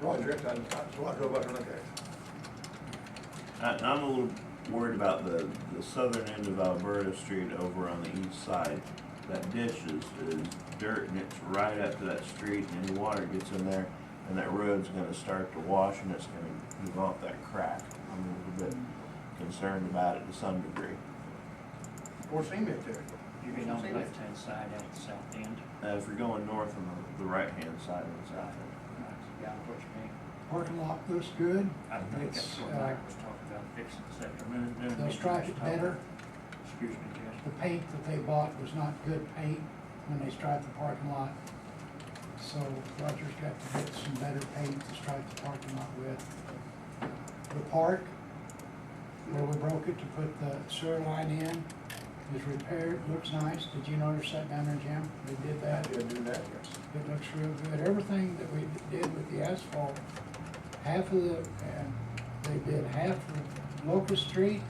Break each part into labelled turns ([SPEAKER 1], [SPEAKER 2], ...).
[SPEAKER 1] Roger, I, I, I drove out and looked at
[SPEAKER 2] I, I'm a little worried about the, the southern end of Alberta Street over on the east side. That ditch is, is dirt and it's right up to that street and any water gets in there and that road's gonna start to wash and it's gonna move off that crack. I'm a little bit concerned about it to some degree.
[SPEAKER 1] it. Poor cement there.
[SPEAKER 3] You're getting on the left-hand side at the south end.
[SPEAKER 2] Uh, if you're going north on the, the right-hand side of the south end.
[SPEAKER 3] Yeah, what you mean.
[SPEAKER 4] Parking lot looks good.
[SPEAKER 3] I think
[SPEAKER 4] It's,
[SPEAKER 3] that's what
[SPEAKER 4] uh,
[SPEAKER 3] Mike was talking about fixing this afternoon. then
[SPEAKER 4] They'll
[SPEAKER 3] maybe
[SPEAKER 4] stripe it
[SPEAKER 3] just talk-
[SPEAKER 4] better.
[SPEAKER 3] Excuse me, Jess.
[SPEAKER 4] The paint that they bought was not good paint when they striped the parking lot. So Roger's got to get some better paint to stripe the parking lot with. The park, where we broke it to put the sewer line in, is repaired, looks nice. Did you notice that down there, Jim? They did that.
[SPEAKER 1] Yeah, do that, yes.
[SPEAKER 4] It looks real good. Everything that we did with the asphalt, half of the, and they did half of Locust Street,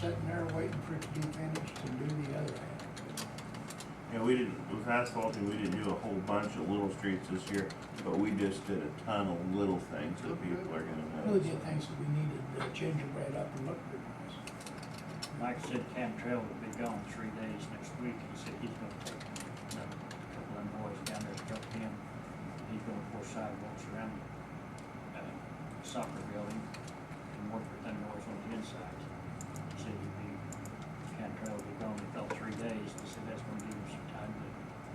[SPEAKER 4] sitting there waiting for it to be finished to do the other half.
[SPEAKER 2] Yeah, we didn't, with asphalting, we didn't do a whole bunch of little streets this year, but we just did a ton of little things that people are gonna
[SPEAKER 4] Really
[SPEAKER 2] notice.
[SPEAKER 4] did things that we needed to gingerbread up and look good. nice.
[SPEAKER 3] Mike said Cantrell will be gone three days next week. He said he's gonna take you know, a couple of them boys down there to help him. He's gonna pour sidewalks around the uh, soccer building and work with them boys on the inside. He said he'd be, Cantrell will be gone in about three days. He said that's gonna give him some time to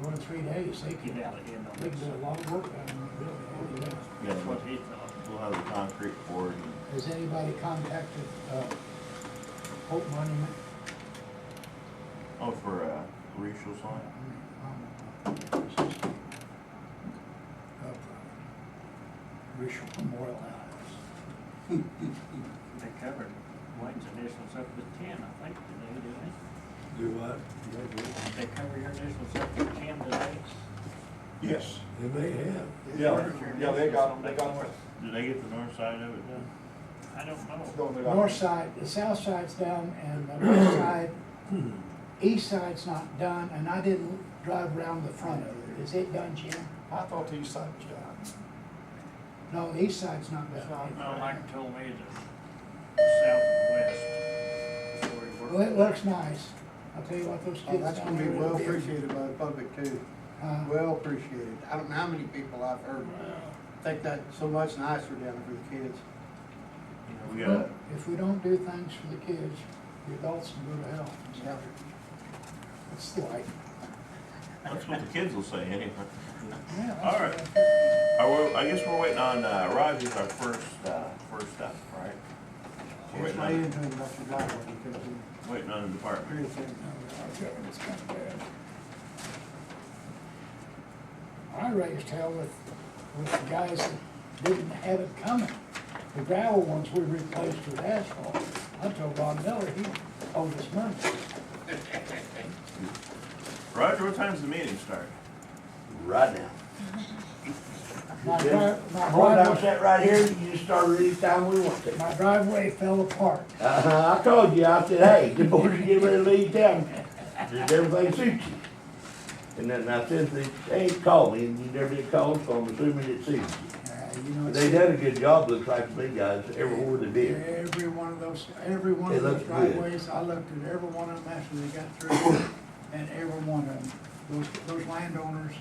[SPEAKER 4] Well, in three days, they could,
[SPEAKER 3] get out of him on
[SPEAKER 4] they
[SPEAKER 3] this.
[SPEAKER 4] could do a lot of work down there, really, really. well.
[SPEAKER 2] Yeah,
[SPEAKER 3] That's what he thought.
[SPEAKER 2] We'll have the concrete poured and
[SPEAKER 4] Has anybody contacted, uh, Hope Monument?
[SPEAKER 2] Oh, for uh, racial sign?
[SPEAKER 4] Racial Memorial House.
[SPEAKER 3] They covered Wayne's initials up with ten, I think, today, didn't they?
[SPEAKER 1] Do what?
[SPEAKER 3] Did they cover your initials up with ten today?
[SPEAKER 1] Yes.
[SPEAKER 5] They may have.
[SPEAKER 1] Yeah, yeah, they got, they got,
[SPEAKER 2] Did they get the north side of it done?
[SPEAKER 3] I don't know.
[SPEAKER 1] no, they got.
[SPEAKER 4] North side, the south side's done and the north side, east side's not done, and I didn't drive around the front of it. Is it done, Jim?
[SPEAKER 1] I thought the east side was down.
[SPEAKER 4] No, the east side's not done.
[SPEAKER 3] No, Mike told me the south and west. before he worked.
[SPEAKER 4] Well, it looks nice. I'll tell you what, those
[SPEAKER 6] Oh,
[SPEAKER 4] kids
[SPEAKER 6] that's
[SPEAKER 4] down
[SPEAKER 6] gonna be
[SPEAKER 4] there.
[SPEAKER 6] well
[SPEAKER 4] did.
[SPEAKER 6] appreciated by the public too,
[SPEAKER 4] Uh,
[SPEAKER 6] well appreciated. I don't know how many people I've heard think that so much nicer down there for the kids.
[SPEAKER 2] We got,
[SPEAKER 4] If we don't do things for the kids, the adults can go to hell.
[SPEAKER 6] Yeah.
[SPEAKER 4] It's life.
[SPEAKER 2] that's what the kids will say anyway.
[SPEAKER 4] Yeah, that's
[SPEAKER 2] All right.
[SPEAKER 4] life.
[SPEAKER 2] Are we, I guess we're waiting on, uh, Roger's our first, uh, first step, right? We're
[SPEAKER 6] It's
[SPEAKER 2] waiting on,
[SPEAKER 6] made into an industrial driveway because we
[SPEAKER 2] waiting on the department.
[SPEAKER 6] created it.
[SPEAKER 4] I raised hell with, with the guys that didn't have it coming. The gravel ones we replaced with asphalt. I told Ron Miller, he owed us money.
[SPEAKER 2] Roger, what time's the meeting start?
[SPEAKER 5] Right now.
[SPEAKER 4] My
[SPEAKER 5] did?
[SPEAKER 4] dri- my
[SPEAKER 5] Boy, that was
[SPEAKER 4] driveway,
[SPEAKER 5] that right here, you just started anytime we want to.
[SPEAKER 4] my driveway fell apart.
[SPEAKER 5] Uh-huh, I called you, I said, hey, the boys are getting ready to leave town, does everything suit you? And then I said, they, they ain't called me, and you never did call, so I'm assuming it suits you.
[SPEAKER 4] Uh, you know,
[SPEAKER 5] But
[SPEAKER 4] it's.
[SPEAKER 5] They done a good job, looks like to me, guys, everywhere they did.
[SPEAKER 4] Every one of those, every one
[SPEAKER 5] It
[SPEAKER 4] of those
[SPEAKER 5] looks good.
[SPEAKER 4] driveways, I looked at every one of them after they got through, and every one of them, those, those landowners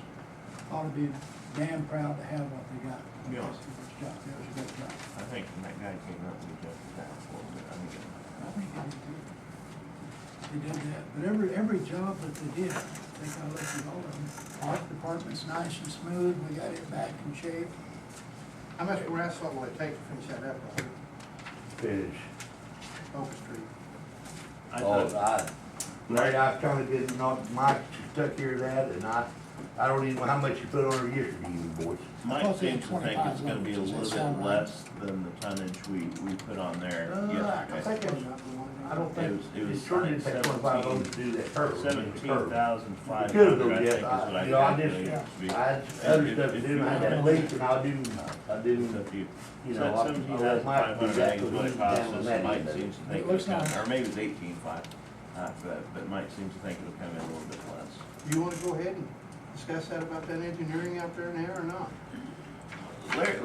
[SPEAKER 4] ought to be damn proud to have what they got.
[SPEAKER 2] Yeah.
[SPEAKER 4] That was a good job. That was a good job.
[SPEAKER 2] I think that guy came up with just that a little bit. I mean,
[SPEAKER 4] I think they did, they did that, but every, every job that they did, I think I looked at all of them. Art department's nice and smooth, we got it back in shape.
[SPEAKER 6] How much more asphalt will it take to finish that up on
[SPEAKER 5] Finish.
[SPEAKER 6] Oak Street?
[SPEAKER 2] I
[SPEAKER 5] Oh,
[SPEAKER 2] thought,
[SPEAKER 5] I, Larry, I kinda did not, Mike took care of that, and I, I don't even know how much you put on her yesterday, you boys.
[SPEAKER 2] Mike
[SPEAKER 4] thought they had
[SPEAKER 2] seems to think
[SPEAKER 4] 25
[SPEAKER 2] it's gonna be a
[SPEAKER 4] left. Does
[SPEAKER 2] little
[SPEAKER 4] that sound
[SPEAKER 2] bit
[SPEAKER 4] right?
[SPEAKER 2] less than the tonnage we, we put on there
[SPEAKER 6] Uh, I
[SPEAKER 2] yesterday.
[SPEAKER 6] think it was not the one.
[SPEAKER 5] I don't think,
[SPEAKER 2] It was- it was
[SPEAKER 5] it sure didn't
[SPEAKER 2] like
[SPEAKER 5] take twenty-five
[SPEAKER 2] 17
[SPEAKER 5] dollars to do that curve. the
[SPEAKER 2] Seventeen
[SPEAKER 5] curve.
[SPEAKER 2] thousand five
[SPEAKER 5] It could've
[SPEAKER 2] hundred,
[SPEAKER 5] been,
[SPEAKER 2] I think is
[SPEAKER 5] yes,
[SPEAKER 2] what
[SPEAKER 5] I, you know, I
[SPEAKER 2] calculated it to be.
[SPEAKER 5] just, I had other stuff to do, I had that leak, and I didn't, I didn't,
[SPEAKER 2] If you,
[SPEAKER 5] you
[SPEAKER 2] so
[SPEAKER 5] know,
[SPEAKER 2] that's
[SPEAKER 5] I,
[SPEAKER 2] seventeen
[SPEAKER 5] I
[SPEAKER 2] thousand
[SPEAKER 5] let
[SPEAKER 2] five
[SPEAKER 5] Mike do
[SPEAKER 2] hundred
[SPEAKER 5] that,
[SPEAKER 2] eggs,
[SPEAKER 5] cause
[SPEAKER 2] what
[SPEAKER 5] we
[SPEAKER 2] it
[SPEAKER 5] down
[SPEAKER 2] costs
[SPEAKER 5] on
[SPEAKER 2] us,
[SPEAKER 5] that
[SPEAKER 2] and Mike
[SPEAKER 5] end of it.
[SPEAKER 2] seems to think
[SPEAKER 4] It looks
[SPEAKER 2] it'll come,
[SPEAKER 4] nice.
[SPEAKER 2] or maybe it's eighteen five, uh, but, but Mike seems to think it'll come in a little bit less.
[SPEAKER 6] You wanna go ahead and discuss that about that engineering out there now or not?
[SPEAKER 2] Larry,